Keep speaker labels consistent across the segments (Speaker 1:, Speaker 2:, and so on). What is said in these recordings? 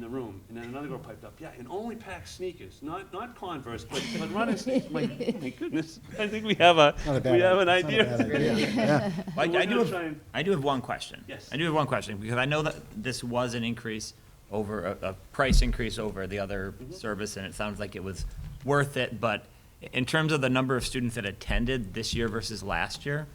Speaker 1: the room, and then another girl piped up, yeah, and only pack sneakers, not, not Converse, but, but running sneakers. I'm like, oh my goodness, I think we have a,
Speaker 2: Not a bad
Speaker 1: we have an
Speaker 2: idea. It's not a
Speaker 1: idea.
Speaker 2: bad idea.
Speaker 1: But
Speaker 3: I,
Speaker 1: we're
Speaker 3: I do
Speaker 1: gonna
Speaker 3: have,
Speaker 1: try and-
Speaker 3: I do have one question.
Speaker 1: Yes.
Speaker 3: I do have one question, because I know that this was an increase over, a, a price increase over the other
Speaker 1: Mm-hmm.
Speaker 3: service, and it sounds like it was worth it, but in terms of the number of students that attended this year versus last year,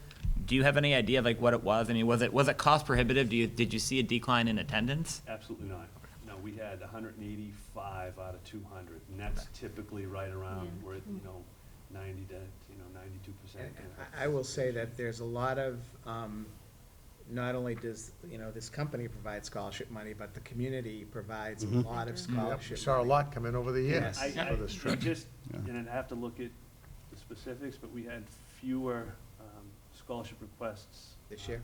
Speaker 3: do you have any idea, like, what it was? I mean, was it, was it cost prohibitive? Do you, did you see a decline in attendance?
Speaker 1: Absolutely not. No, we had hundred and eighty-five out of two hundred, and that's typically right around where, it, you know, ninety to, you know, ninety-two percent.
Speaker 4: And- and I I will say that there's a lot of, um, not only does, you know, this company provide scholarship money, but the community provides a lot of
Speaker 5: Yep,
Speaker 4: scholarship.
Speaker 5: we saw a
Speaker 4: money.
Speaker 5: lot come in over the years
Speaker 4: Yes.
Speaker 1: I,
Speaker 5: for this
Speaker 1: I, we
Speaker 5: trip.
Speaker 1: just, and I'd have to look at the specifics, but we had fewer um, scholarship requests.
Speaker 4: This
Speaker 1: uh,
Speaker 4: year?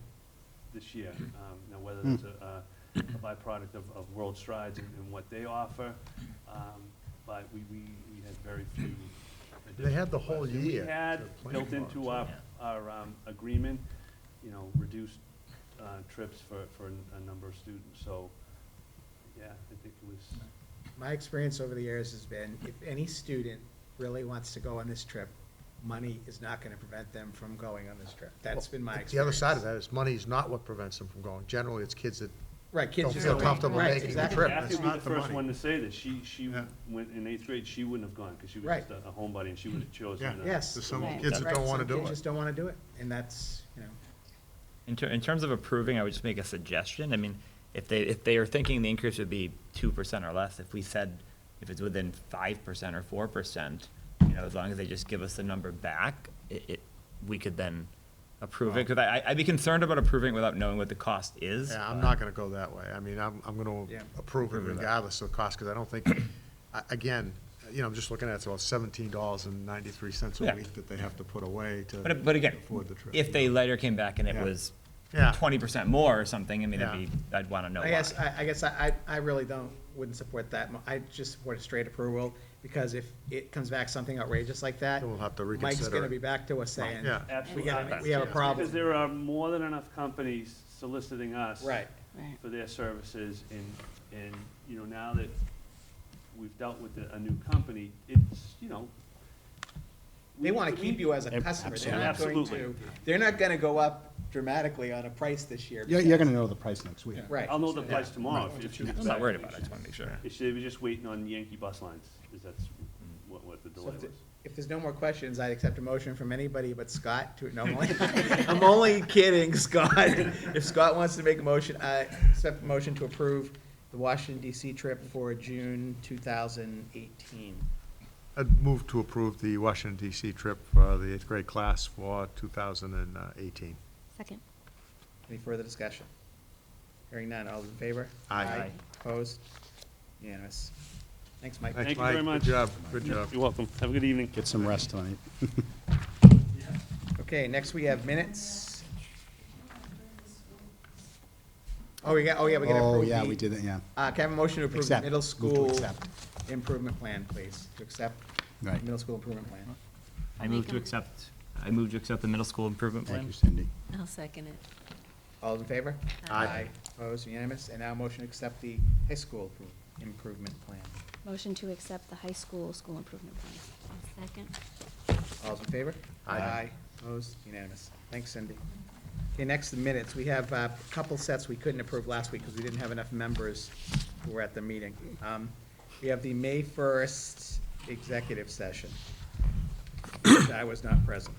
Speaker 1: This year. Um, Now, whether
Speaker 5: Hmm.
Speaker 1: that's a a byproduct of, of World Strides and and what they offer, um, but we, we, we had very few.
Speaker 5: They had the whole
Speaker 1: additional requests. And
Speaker 5: year
Speaker 1: We
Speaker 5: to
Speaker 1: had
Speaker 5: plan
Speaker 1: built into
Speaker 5: for
Speaker 1: our,
Speaker 3: yeah.
Speaker 1: our um, agreement, you know, reduced uh, trips for, for a number of students, so, yeah, I think it was,
Speaker 4: My experience over the years has been, if any student really wants to go on this trip, money is not gonna prevent them from going on this trip. That's been my experience.
Speaker 5: The other side of that is money is not what prevents them from going. Generally, it's kids that,
Speaker 4: Right, kids
Speaker 5: don't
Speaker 4: just.
Speaker 5: feel
Speaker 4: don't-
Speaker 5: comfortable
Speaker 4: right,
Speaker 5: making the
Speaker 4: exactly.
Speaker 5: trip.
Speaker 1: Kathy
Speaker 5: It's
Speaker 1: would be
Speaker 5: not
Speaker 1: the
Speaker 5: the
Speaker 1: first
Speaker 5: money.
Speaker 1: one to say that. She, she
Speaker 5: Yeah.
Speaker 1: went in eighth grade, she wouldn't have gone because she was
Speaker 4: Right.
Speaker 1: just a a homebody and she would have chosen.
Speaker 5: Yeah.
Speaker 1: to-
Speaker 4: Yes.
Speaker 5: there's some
Speaker 6: Right.
Speaker 5: kids that
Speaker 4: Right,
Speaker 5: don't
Speaker 4: some
Speaker 5: want to do
Speaker 4: kids
Speaker 5: it.
Speaker 4: just don't wanna do it, and that's, you know.
Speaker 3: In, ter- in terms of approving, I would just make a suggestion. I mean, if they, if they are thinking the increase would be two percent or less, if we said, if it's within five percent or four percent, you know, as long as they just give us the number back, it, it, we could then approve it. Cause I, I- I'd be concerned about approving without knowing what the cost is.
Speaker 5: Yeah, I'm
Speaker 3: but-
Speaker 5: not gonna go that way. I mean, I'm, I'm gonna
Speaker 4: Yeah.
Speaker 5: approve it
Speaker 3: Approve of that.
Speaker 5: regardless of the cost, because I don't think, I- again, you know, I'm just looking at, it's about seventeen dollars and ninety-three cents a
Speaker 3: Yeah.
Speaker 5: week that they have to put away to
Speaker 3: But, but again,
Speaker 5: afford the trip.
Speaker 3: if they later came back and it
Speaker 5: Yeah.
Speaker 3: was
Speaker 5: Yeah.
Speaker 3: twenty percent more or something, I mean, it'd
Speaker 5: Yeah.
Speaker 3: be, I'd wanna know
Speaker 4: I
Speaker 3: why.
Speaker 4: guess, I, I guess I, I I really don't, wouldn't support that. mo- I just support a straight approval, because if it comes back something outrageous like that,
Speaker 5: Then we'll have to
Speaker 4: Mike's
Speaker 5: reconsider
Speaker 4: gonna
Speaker 5: it.
Speaker 4: be back to us saying,
Speaker 5: Yeah.
Speaker 4: we
Speaker 1: Absolutely.
Speaker 4: got, a- we have a
Speaker 5: Yeah.
Speaker 1: Because
Speaker 4: problem.
Speaker 1: there are more than enough companies soliciting us.
Speaker 4: Right.
Speaker 6: Right.
Speaker 1: For their services and, and, you know, now that we've dealt with a a new company, it's, you know. we-
Speaker 4: They wanna
Speaker 1: we-
Speaker 4: keep you as a customer, they're not going
Speaker 1: Absolutely.
Speaker 4: to, they're not gonna go up dramatically on a price this year.
Speaker 2: You're, you're gonna know the price next week.
Speaker 4: Right.
Speaker 1: I'll know the
Speaker 4: Yeah.
Speaker 1: price tomorrow. if- if she gets
Speaker 3: I'm not
Speaker 1: back.
Speaker 3: worried about it, I just wanna make sure.
Speaker 1: If They were just waiting on Yankee bus lines, because that's what, what the
Speaker 4: So
Speaker 1: delay
Speaker 4: if th-
Speaker 1: was.
Speaker 4: If there's no more questions, I'd accept a motion from anybody but Scott to, no, I'm only- I'm only kidding, Scott. If Scott wants to make a motion, I accept a motion to approve the Washington DC trip for June two thousand eighteen.
Speaker 5: I'd move to approve the Washington DC trip for the eighth grade class for two thousand and eighteen.
Speaker 6: Second.
Speaker 4: Any further discussion? Hearing none, all those in favor?
Speaker 5: Aye. Aye.
Speaker 4: Opposed? Unanimous. Thanks, Mike.
Speaker 1: Thank you very
Speaker 5: Mike.
Speaker 1: much.
Speaker 5: Good job, good job.
Speaker 1: You're welcome. Have a good evening.
Speaker 2: Get some rest tonight.
Speaker 4: Okay, next we have minutes. Oh, we got, oh, yeah, we got to approve
Speaker 2: Oh, yeah,
Speaker 4: the-
Speaker 2: we did it, yeah.
Speaker 4: Uh, can I have a motion to approve the
Speaker 2: Accept.
Speaker 4: middle
Speaker 2: Move to
Speaker 4: school
Speaker 2: accept.
Speaker 4: improvement plan, please? To accept the
Speaker 2: Right.
Speaker 4: middle school improvement plan.
Speaker 3: I move to accept, I move to accept the middle school improvement
Speaker 2: Thank
Speaker 3: plan.
Speaker 2: you, Cindy.
Speaker 6: I'll second it.
Speaker 4: All in favor?
Speaker 6: Aye.
Speaker 4: Opposed, unanimous? And now a motion to accept the high school appro- improvement plan.
Speaker 6: Motion to accept the high school school improvement plan. Second.
Speaker 4: All in favor?
Speaker 5: Aye.
Speaker 4: Opposed, unanimous. Thanks, Cindy. Okay, next, the minutes. We have uh, a couple sets we couldn't approve last week because we didn't have enough members who were at the meeting. Um, We have the May first executive session. I was not present.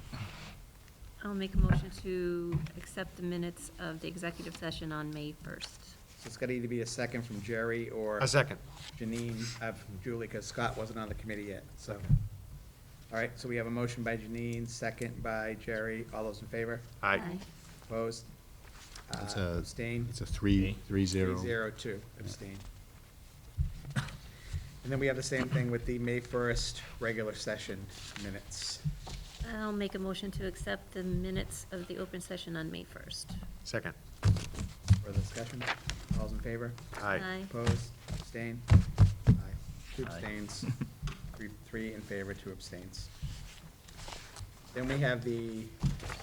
Speaker 7: I'll make a motion to accept the minutes of the executive session on May 1st.
Speaker 4: So it's got to either be a second from Jerry or
Speaker 5: A second.
Speaker 4: Janine, uh, from Julie, because Scott wasn't on the committee yet, so. All right, so we have a motion by Janine, second by Jerry. All those in favor?
Speaker 6: Aye.
Speaker 4: Opposed? Uh,
Speaker 2: It's a-
Speaker 4: Abstained?
Speaker 2: It's a three, three zero.
Speaker 4: Three zero two, abstained. And then we have the same thing with the May first regular session minutes.
Speaker 7: I'll make a motion to accept the minutes of the open session on May 1st.
Speaker 5: Second.
Speaker 4: Further discussion? All's in favor?
Speaker 7: Aye.
Speaker 4: Opposed? Abstained? Aye. Two
Speaker 3: Aye.
Speaker 4: abstains, three, three in favor, two abstains. Then we have the,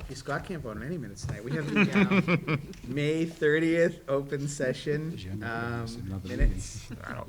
Speaker 4: gee, Scott can't vote on any minutes tonight. We have the, um, May thirtieth open session,
Speaker 2: Agenda,
Speaker 4: um,
Speaker 2: it's another meeting.
Speaker 4: minutes.
Speaker 3: I don't